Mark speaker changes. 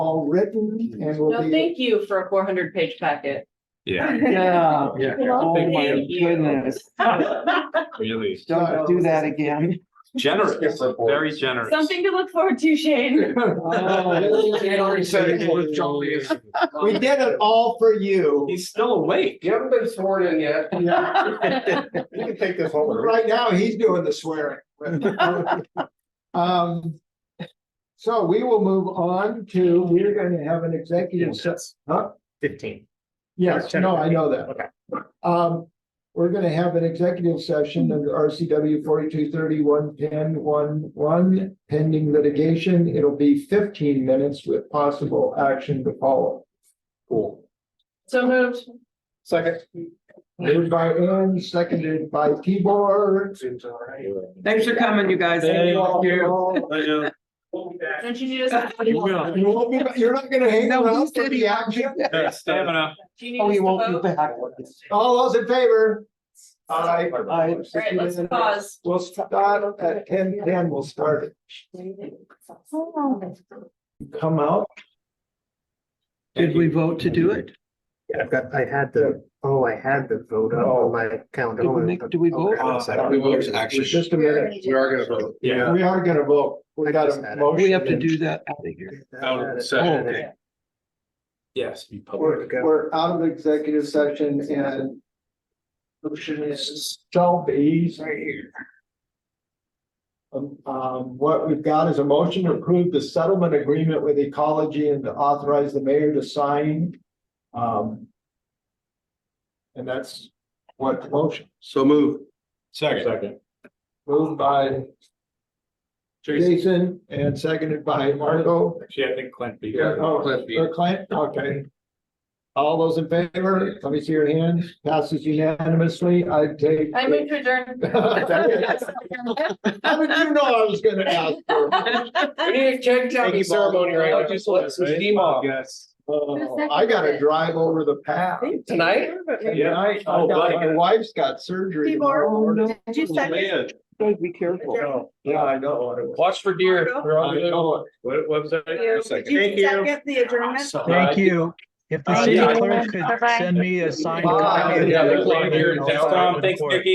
Speaker 1: all written
Speaker 2: Mm-hmm.
Speaker 1: and will
Speaker 3: No,
Speaker 1: be.
Speaker 3: thank you for a four hundred page packet.
Speaker 4: Yeah,
Speaker 2: Yeah,
Speaker 4: yeah,
Speaker 2: oh my
Speaker 3: Thank you.
Speaker 2: goodness,
Speaker 4: really
Speaker 2: don't do that again.
Speaker 4: generous, very generous.
Speaker 3: Something to look forward to, Shane.
Speaker 1: Oh, We did it all for you.
Speaker 4: He's still awake.
Speaker 5: You haven't been sworn in yet.
Speaker 1: You can take this home. Right now, he's doing the swearing. Um. So we will move on to, we're gonna have an executive session. Huh?
Speaker 6: Fifteen.
Speaker 1: Yes, no, I know that.
Speaker 6: Okay.
Speaker 1: Um, we're gonna have an executive session under RCW forty-two thirty-one ten one one pending litigation. It'll be fifteen minutes with possible action to follow.
Speaker 5: Cool.
Speaker 3: So moved.
Speaker 5: Second.
Speaker 1: Moved by Aaron, seconded by Tibor.
Speaker 5: Seems all right.
Speaker 2: Thanks for coming, you guys.
Speaker 3: Don't you need us?
Speaker 2: Oh, You will.
Speaker 1: You won't be, you're not gonna hang
Speaker 2: No, he
Speaker 1: around for
Speaker 2: said
Speaker 1: the
Speaker 2: he-
Speaker 1: action.
Speaker 4: Stamina.
Speaker 3: Do you need
Speaker 2: Oh,
Speaker 3: us
Speaker 2: you
Speaker 3: to
Speaker 2: won't
Speaker 3: vote?
Speaker 2: be back.
Speaker 1: All those in favor?
Speaker 3: All
Speaker 1: Aye.
Speaker 2: Aye.
Speaker 3: right, let's pause.
Speaker 1: We'll start at ten ten, we'll start it. Come out.
Speaker 2: Did we vote to do it?
Speaker 6: I've got, I had the, oh, I had the vote up on my calendar. Oh,
Speaker 2: Did we make- did we vote?
Speaker 6: Hold on a second.
Speaker 5: Oh. Uh, We will, actually.
Speaker 1: Just a minute.
Speaker 5: We are gonna vote.
Speaker 4: Yeah.
Speaker 1: We are gonna vote. We got
Speaker 6: I
Speaker 1: a
Speaker 6: just-
Speaker 1: motion.
Speaker 2: We have to do that out of here.
Speaker 4: Out of the
Speaker 2: Oh,
Speaker 4: session.
Speaker 2: okay.
Speaker 4: Yes. be
Speaker 1: We're,
Speaker 4: public.
Speaker 1: we're out of executive session and. Motion is shall be. Right here. Um, um, what we've got is a motion to approve the settlement agreement with ecology and to authorize the mayor to sign. Um. And that's what the motion,
Speaker 5: So move.
Speaker 4: Second.
Speaker 1: moved by Jason and seconded by Marco.
Speaker 4: Actually, I think Clint beat.
Speaker 1: Yeah,
Speaker 4: it.
Speaker 1: oh, or Clint, okay. All those in favor, let me see your hand, passes unanimously, I take.
Speaker 3: I move to adjourn.
Speaker 1: How did you know I was gonna ask? for it?
Speaker 5: We need a keg counting ceremony right now. Just let some steam off.
Speaker 4: Yes.
Speaker 1: Oh, I gotta drive over the path.
Speaker 5: Tonight?
Speaker 1: And I, I
Speaker 4: Oh,
Speaker 1: got- my
Speaker 4: buddy.
Speaker 1: wife's got surgery.
Speaker 2: Oh,
Speaker 1: tomorrow.
Speaker 2: no. Guys, Be careful.
Speaker 1: Yeah, I know. what it was.
Speaker 5: Watch for deer. They're all
Speaker 4: I
Speaker 5: good.
Speaker 4: know it. What, what was that? Second.
Speaker 5: Thank you.
Speaker 7: Thank you. If the
Speaker 5: Uh,
Speaker 7: city
Speaker 5: yeah.
Speaker 7: clerk could send me a signed
Speaker 1: Bye.
Speaker 7: copy. of the
Speaker 5: Yeah, they're
Speaker 7: clock,
Speaker 5: playing here in
Speaker 7: I'll
Speaker 5: town.
Speaker 7: sign it
Speaker 6: Oh,
Speaker 4: Tom, thanks,
Speaker 7: for it.
Speaker 4: Vicky.